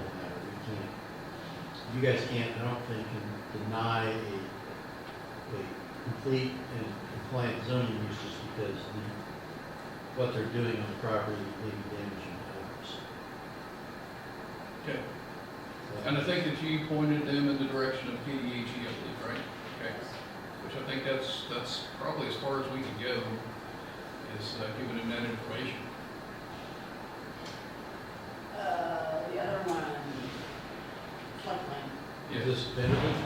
think, Mm-hmm. you guys can't, I don't think, can deny a, a complete and compliant zoning use just because the, what they're doing on the property may be damaging to Okay, others. and I think that you pointed them in the direction of KDHE, I believe, right? Okay, which I think that's, that's probably as far as we can go, is uh, giving them that information. Uh, the other one, floodplain. Is Yes, this benefit?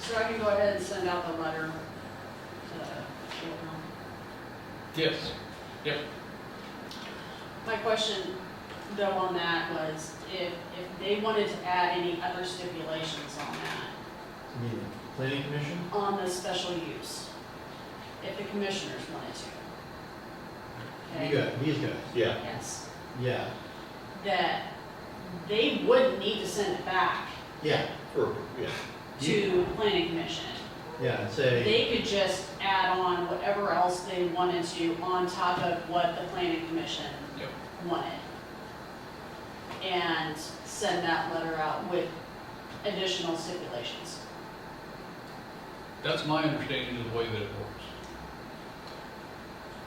So I can go ahead and send out the letter to Wilhelm. yes, My question though on that was if, if they wanted to add any other stipulations on that, I mean, the planning commission? on the special use, if the commissioners wanted to. You Okay? got, these guys, Yeah, Yes, yeah, that they would need to send it back yeah, or, yeah, to planning commission. yeah, and say, They could just add on whatever else they wanted to on top of what the planning commission Yep. wanted. And send that letter out with additional stipulations. that's my understanding of the way that it works.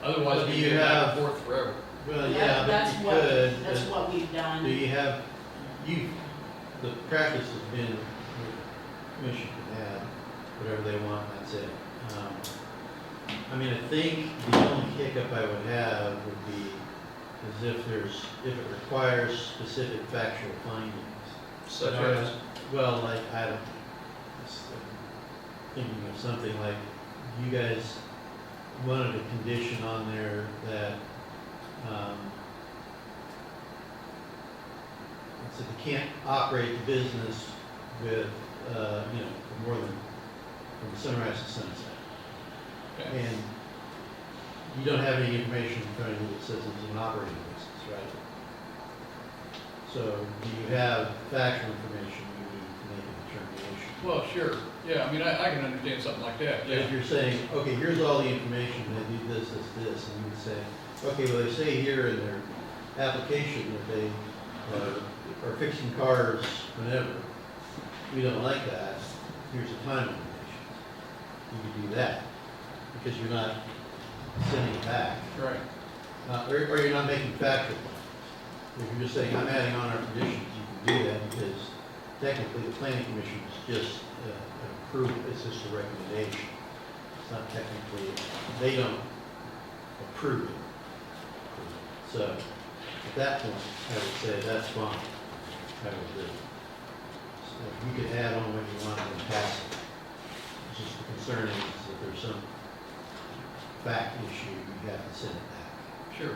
Otherwise, But do we you get back have- and forth forever. well, yeah, That's but you what- could, That's but what we've do done. you have, you, the practice has been, the commission can add whatever they want, that's it. Um, I mean, I think the only hiccup I would have would be is if there's, if it requires specific factual findings. such Or, as, Well, like, I don't, just, um, thinking of something like, you guys wanted a condition on there that, um, it said you can't operate the business with, uh, you know, for more than, from sunrise to sunset. Okay. And you don't have any information in front of you that says it's an operating business, right? So do you have factual information you need to make a determination? Well, sure, yeah, I mean, I, I can understand something like that, yeah. If you're saying, okay, here's all the information, they do this, this, this, and you would say, okay, well, they say here in their application that they uh, are fixing cars whenever. We don't like that, here's the time limitations. You could do that, because you're not sending it back, Right, Uh, or, or you're not making factual findings. If you're just saying, I'm adding on our conditions, you can do that, because technically, the planning commission is just uh, an approve, it's just a recommendation. It's not technically, they don't approve it. So, at that point, I would say that's fine, I would do. it. So You could add on what you want and pass it. It's just the concern is that there's some fact issue, you have to send it back. sure.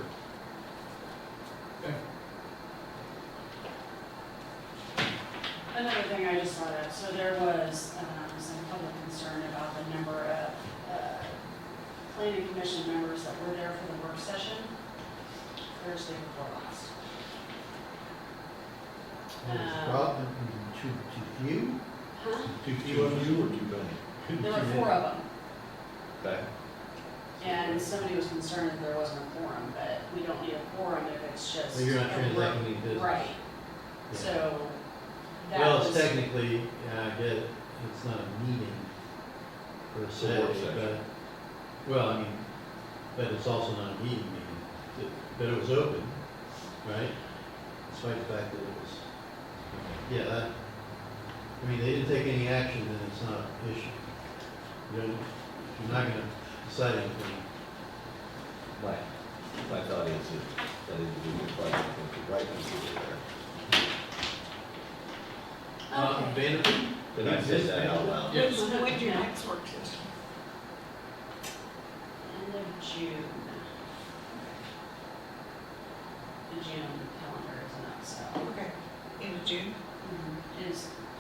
Another thing I just thought of, so there was, um, some public concern about the number of, uh, planning commission members that were there for the work session Thursday before last. What was the Um, problem? Too, too few? Huh? Too two few of of you you? or two many? Too- There too were many. four of them. Okay. And somebody was concerned that there wasn't a quorum, but we don't need a quorum if it's just. So you're not a work- transacting any business. Right, Yeah. so that Well, it's was, technically, yeah, I get it, it's not a meeting per It's a work se, session. but, uh, well, I mean, but it's also not a meeting uh, meeting. It- But it was open, right? Despite the fact that it was, yeah, that, I mean, they didn't take any action, then it's not an issue. You don't, you're not gonna decide anything. My, my thought is that that individual probably thinks the right people are Uh, okay. Vanderbilt? there. Did I say that out loud? Yes. When's- when's your next work session? End of June. The June calendar isn't up, so. Okay. In June? Mhm. It is,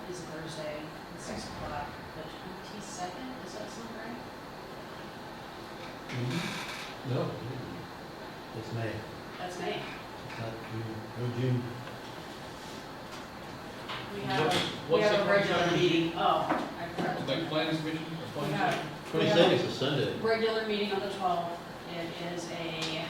is Thursday, at six o'clock, the twenty-second, is that sound right? No. It's May, That's May. it's not June, no June. We have, What's- we what's have the a regular first- meeting, oh, I corrected. Like planning commission or We planning? have- we have Twenty-second is a Sunday. regular meeting on the twelfth. It is a